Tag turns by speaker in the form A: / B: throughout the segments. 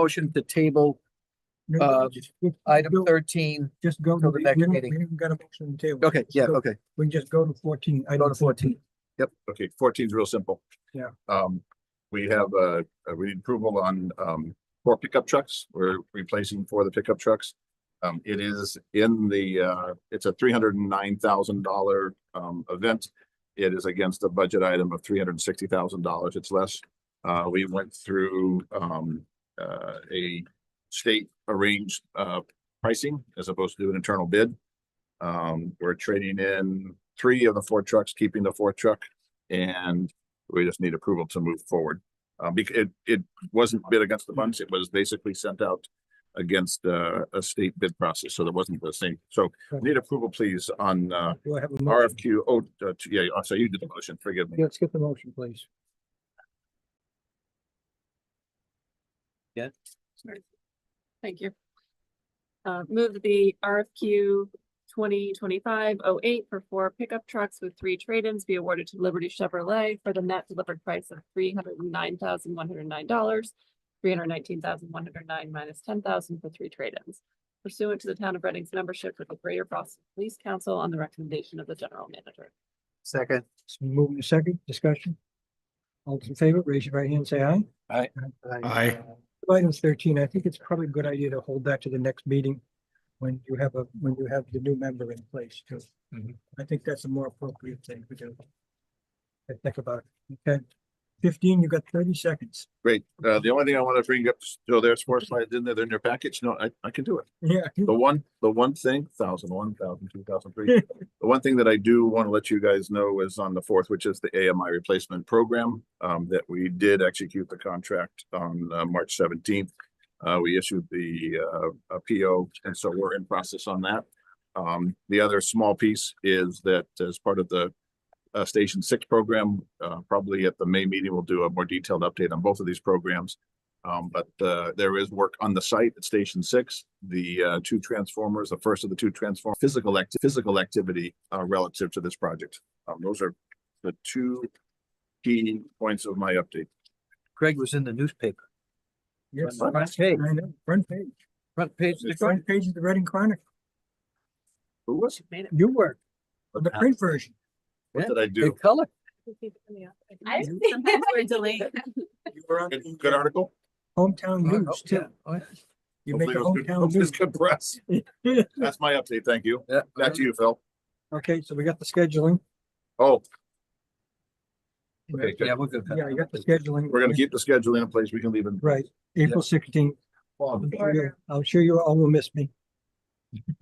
A: motion to table
B: No,
A: Uh,
B: just- we-
A: item
B: go-
A: thirteen.
B: Just go.
A: till
B: to
A: the next
B: we don't-
A: meeting.
B: We haven't got a motion on the table.
A: Okay, yeah,
B: Go-
A: okay.
B: We just go to fourteen.
A: Go
B: item
A: to fourteen.
C: Okay, fourteen's real simple.
B: Yeah.
C: Um, we have, uh, uh, we need approval on, um, four pickup trucks. We're replacing four of the pickup trucks. Um, it is in the, uh, it's a three hundred and nine thousand dollar, um, event. It is against a budget item of three hundred and sixty thousand dollars. It's less. Uh, we went through, um, uh, a state arranged, uh, pricing as opposed to an internal bid. Um, we're trading in three of the four trucks, keeping the fourth truck and we just need approval to move forward. Uh, bec- it, it wasn't bid against the bunch, it was basically sent out against, uh, a state bid process, so there wasn't the same. So need approval, please, on, uh,
B: Do I have a motion?
C: RFQ, oh, uh, t- yeah, so you did the motion, forgive me.
B: Mm-hmm. Yeah, Let's get the motion, please.
D: Thank you. Uh, move that the RFQ twenty twenty-five oh eight for four pickup trucks with three trade-ins be awarded to Liberty Chevrolet for the net delivered price of three hundred and nine thousand one hundred and nine dollars, three hundred nineteen thousand one hundred nine minus ten thousand for three trade-ins pursuant to the town of Reading's membership with the Greater Boston Police Council on the recommendation of the general manager.
A: Second.
B: So moving to second discussion. All those in favor, raise your right hand, say aye.
E: Aye.
B: Items thirteen, I think it's probably a good idea to hold that to the next meeting when you have a, when you have the new member in place too.
E: Mhm.
B: I think that's a more appropriate thing to do. I think about it, okay? Fifteen, you got thirty seconds.
C: Great, uh, the only thing I want to bring up, so there's four slides in there, they're in your package, no, I, I can do it.
B: Yeah.
C: The one, the one thing, thousand, one thousand, two thousand, three. The one thing that I do want to let you guys know is on the fourth, which is the AMI replacement program, um, that we did execute the contract on, uh, March seventeenth. Uh, we issued the, uh, a PO, and so we're in process on that. Um, the other small piece is that as part of the, uh, Station Six program, uh, probably at the May meeting, we'll do a more detailed update on both of these programs. Um, but, uh, there is work on the site at Station Six, the, uh, two transformers, the first of the two transform, physical act, physical activity, uh, relative to this project. Um, those are the two key points of my update.
A: Greg was in the newspaper.
B: Yes, I
A: Front page,
B: know, front page,
A: front page.
B: the front page of the Reading Chronicle,
C: Who was?
D: Made it.
B: you were, the
C: What
B: print version.
C: did I
A: The
C: do?
A: color.
D: I
B: didn't
D: Sometimes we're delayed.
B: You were on
C: Good
B: the,
C: good
B: uh,
C: article?
B: Hometown news too.
A: Oh, Yeah.
B: You make a
C: Hopefully
B: hometown
C: it was good-
B: news.
C: hopefully it's good press. That's my update. Thank you.
A: Yeah.
C: Back to you, Phil.
B: Okay, so we got the scheduling.
C: Oh,
B: Yeah,
C: Okay, good.
A: Yeah, we're good.
B: you got the scheduling.
C: we're gonna keep the schedule in a place we can leave in.
B: Right, April sixteenth.
C: Well,
B: I'm sure you all will miss me.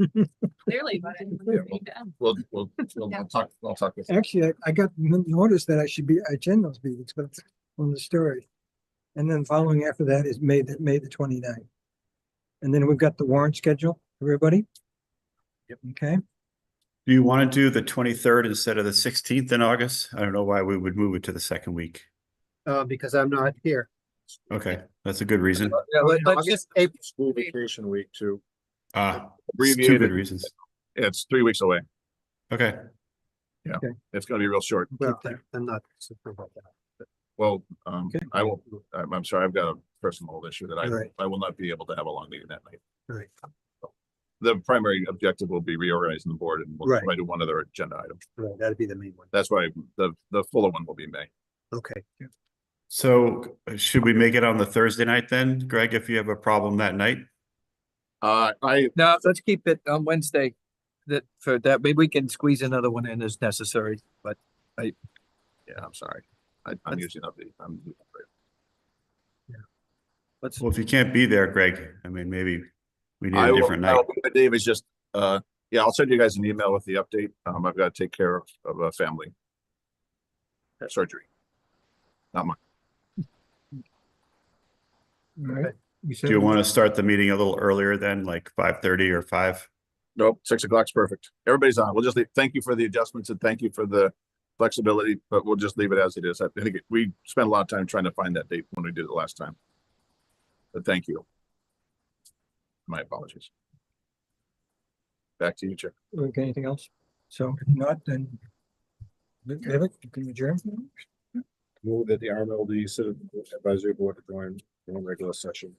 D: Clearly, but I didn't read that.
C: We'll, we'll, we'll I'll talk, I'll talk with you.
B: Actually, I, I got n- notice that I should be, I attend those meetings, but it's on the story. And then following after that is May, the May the 29th. And then we've got the warrant schedule, everybody? Yep. Okay,
E: Do you want to do the twenty-third instead of the sixteenth in August? I don't know why we would move it to the second week.
A: Uh, because I'm not here.
E: Okay, that's a good reason.
A: Yeah, let- let's
C: August-
A: just, April-
C: School vacation week too.
E: Ah, it's two good
C: Abbreviated,
E: reasons.
C: it's three weeks away.
E: Okay,
C: It's gonna be real short.
A: well, I'm not super about that.
C: Well, um,
B: Okay.
C: I will, I'm, I'm sorry, I've got a personal issue that
A: All right.
C: I, I will not be able to have a long meeting that night.
A: All right.
C: The primary objective will be reorganizing the board and we'll
A: Right.
C: try to one other agenda item.
A: Right, that'd be the main one.
C: That's why the, the fuller one will be in May.
A: Okay.
E: so uh, should we make it on the Thursday night then, Greg, if you have a problem that night?
C: Uh, I,
A: No, let's keep it on Wednesday. That, for that, maybe we can squeeze another one in as necessary, but
C: yeah, I'm sorry. I, I'm
A: That's-
C: using up the, I'm.
A: let's,
E: Well, if you can't be there, Greg, I mean, maybe we need
C: I
E: a
C: will,
E: different
C: I
E: night.
C: will, but Dave is just, uh, yeah, I'll send you guys an email with the update. Um, I've got to take care of, of a family. Surgery.
B: all right.
E: Do you want to start the meeting a little earlier then, like five thirty or five?
C: Nope, six o'clock's perfect. Everybody's on. We'll just leave, thank you for the adjustments and thank you for the flexibility, but we'll just leave it as it is. I think it- we spent a lot of time trying to find that date when we did it last time. But thank you. My apologies. Back to you, Chair.
B: Okay, anything else? So if not, then David, you can adjourn.
C: Move that the RMLD Citizen Advisory Board to join in regular session.